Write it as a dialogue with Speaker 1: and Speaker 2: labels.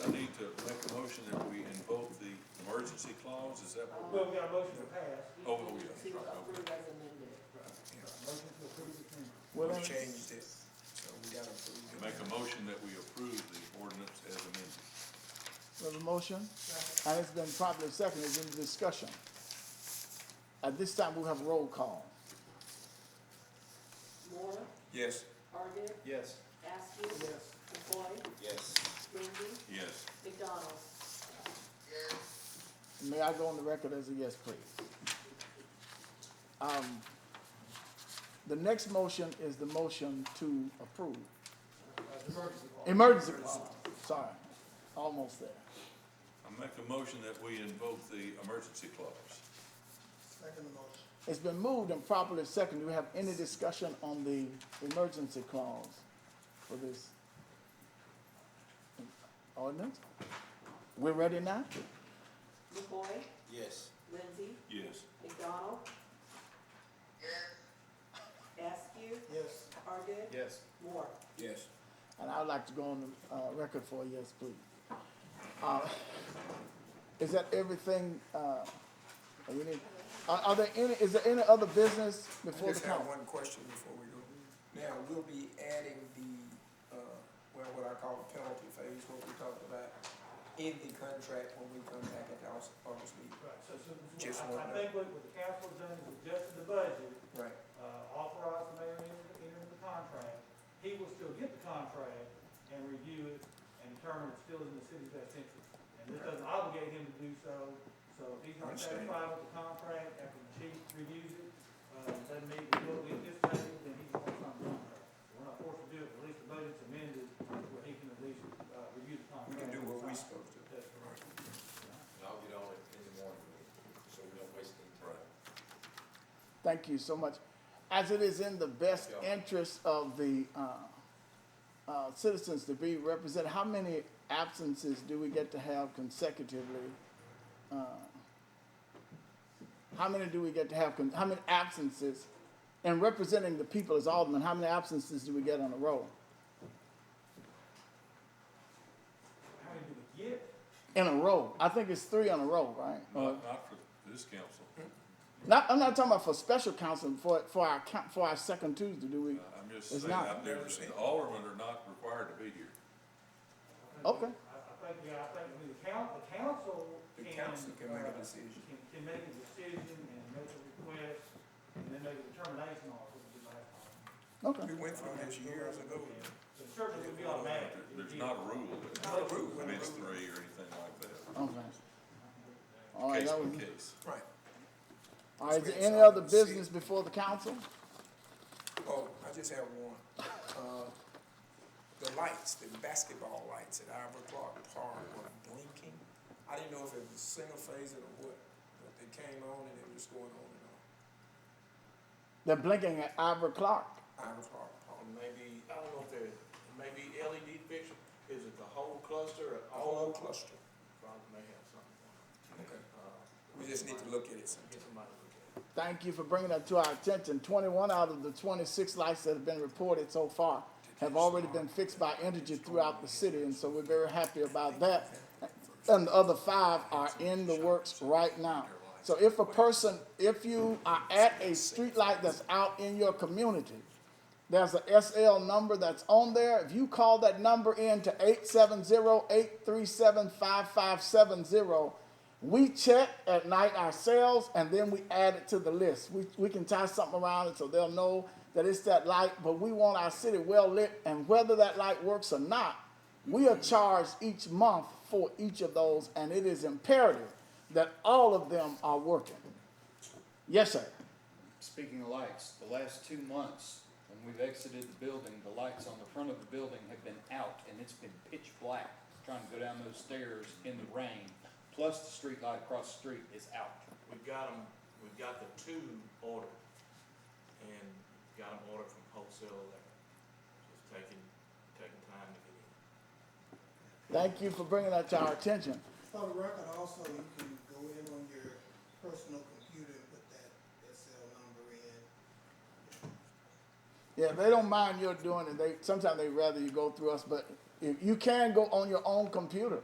Speaker 1: proposed, is that what?
Speaker 2: Well, we got a motion to pass.
Speaker 1: Oh, oh, yeah,
Speaker 2: See,
Speaker 1: right, okay.
Speaker 2: approve as amended. Motion to approve as amended.
Speaker 3: Well,
Speaker 4: We
Speaker 3: I'm-
Speaker 4: changed it, so we gotta approve
Speaker 1: Make a motion that we approve the ordinance as amended.
Speaker 3: There's a motion, and it's been properly seconded, it's in discussion. At this time, we'll have roll call.
Speaker 5: Moore,
Speaker 4: Yes.
Speaker 5: Argid,
Speaker 4: Yes.
Speaker 5: Askew.
Speaker 2: Yes.
Speaker 5: McCoy,
Speaker 4: Yes.
Speaker 5: Lindsey,
Speaker 1: Yes,
Speaker 5: McDonald.
Speaker 3: May I go on the record as a yes, please? Um, the next motion is the motion to approve. Emergency clause, sorry, almost there.
Speaker 1: I make a motion that we invoke the emergency clause.
Speaker 2: Second motion.
Speaker 3: It's been moved and properly seconded. Do we have any discussion on the emergency clause for this ordinance? We're ready now?
Speaker 5: McCoy,
Speaker 4: Yes.
Speaker 5: Lindsey,
Speaker 1: Yes.
Speaker 5: McDonald. Askew,
Speaker 2: Yes.
Speaker 5: Argid.
Speaker 4: Yes.
Speaker 5: Moore.
Speaker 4: Yes.
Speaker 3: And I would like to go on the uh, record for a yes, please. Uh, Is that everything, uh, that we need? Are, are there any, is there any other business
Speaker 4: I
Speaker 3: before the
Speaker 4: just have
Speaker 3: council?
Speaker 4: one question before we go. Now, we'll be adding the, uh, well, what I call the penalty phase, what we talked about in the contract when we come back at the August, August meeting.
Speaker 2: Right, so, so,
Speaker 4: Just
Speaker 2: I-
Speaker 4: one
Speaker 2: I
Speaker 4: note.
Speaker 2: think what, what the council has done is adjusted the budget,
Speaker 4: Right.
Speaker 2: uh, authorized the mayor to enter, enter into the contract. He will still get the contract and review it and determine it's still in the city's best interest. And this doesn't obligate him to do so, so if he's not
Speaker 4: Understand.
Speaker 2: satisfied with the contract after the chief reviews it, uh, doesn't mean we will get this table, then he's gonna sign the contract. We're not forced to do it, but at least the budget's amended, where he can at least, uh, review the
Speaker 4: We
Speaker 2: contract.
Speaker 4: can do what we supposed to.
Speaker 2: That's correct.
Speaker 6: And I'll get on it in the morning, so we don't waste any time.
Speaker 3: Thank you so much. As it is in the best
Speaker 6: Yeah.
Speaker 3: interest of the, uh, uh, citizens to be represented, how many absences do we get to have consecutively? Uh, How many do we get to have, con- how many absences? And representing the people as aldermen, how many absences do we get on a roll?
Speaker 2: How many do we get?
Speaker 3: In a row. I think it's three on a row, right? Or-
Speaker 1: Not, not for this council.
Speaker 3: Not, I'm not talking about for special council, for, for our, coun- for our second Tuesday, do we?
Speaker 1: I'm just saying,
Speaker 3: It's not.
Speaker 1: I've never seen, the aldermen are not required to be here.
Speaker 3: Okay.
Speaker 2: I, I think, yeah, I think we- the coun, the council
Speaker 4: The
Speaker 2: can.
Speaker 4: council can make
Speaker 2: uh,
Speaker 4: a decision.
Speaker 2: Can, can make a decision and make a request, and then make a determination on it, which is last time.
Speaker 3: Okay.
Speaker 4: We went through this years ago.
Speaker 2: So certainly would be automatic.
Speaker 1: There- There's not a rule that
Speaker 4: Not a rule.
Speaker 1: limits three or anything like that,
Speaker 3: Okay. All
Speaker 1: case
Speaker 3: right, that was,
Speaker 1: by case.
Speaker 4: Right.
Speaker 3: all right, is there
Speaker 4: It's
Speaker 3: any
Speaker 4: all
Speaker 3: other
Speaker 4: in the city.
Speaker 3: business before the council?
Speaker 4: Oh, I just have one. Uh, The lights, the basketball lights at Ivor Clark Park were blinking. I didn't know if it was single phase or what, but they came on and it was going on and
Speaker 3: They're blinking at Ivor Clark.
Speaker 4: on. Ivor Clark Park.
Speaker 7: Maybe, I don't know if they're, maybe LED fixture, is it the whole cluster or all
Speaker 4: All
Speaker 7: of
Speaker 4: in
Speaker 7: them?
Speaker 4: cluster.
Speaker 7: Probably may have something on it.
Speaker 4: Okay.
Speaker 7: Uh,
Speaker 4: We just need to look at it sometime.
Speaker 7: Get somebody to look at it.
Speaker 3: Thank you for bringing that to our attention. Twenty-one out of the twenty-six lights that have been reported so far have already been fixed by Energy throughout the city, and so we're very happy about that. And the other five are in the works right now. So if a person, if you are at a streetlight that's out in your community, there's a SL number that's on there. If you call that number in to 870-837-5570, we check at night ourselves and then we add it to the list. We, we can tie something around it so they'll know that it's that light, but we want our city well lit and whether that light works or not, we are charged each month for each of those and it is imperative that all of them are working. Yes, sir.
Speaker 8: Speaking of lights, the last two months, when we've exited the building, the lights on the front of the building have been out and it's been pitch black trying to go down those stairs in the rain, plus the street light across the street is out.
Speaker 7: We've got them, we've got the two ordered, and got them ordered from wholesale electric. Just taking, taking time to get in.
Speaker 3: Thank you for bringing that to our attention.
Speaker 9: For the record, also, you can go in on your personal computer and put that SL number in.
Speaker 3: Yeah, they don't mind your doing it. They sometimes they rather you go through us, but if you can go on your own computer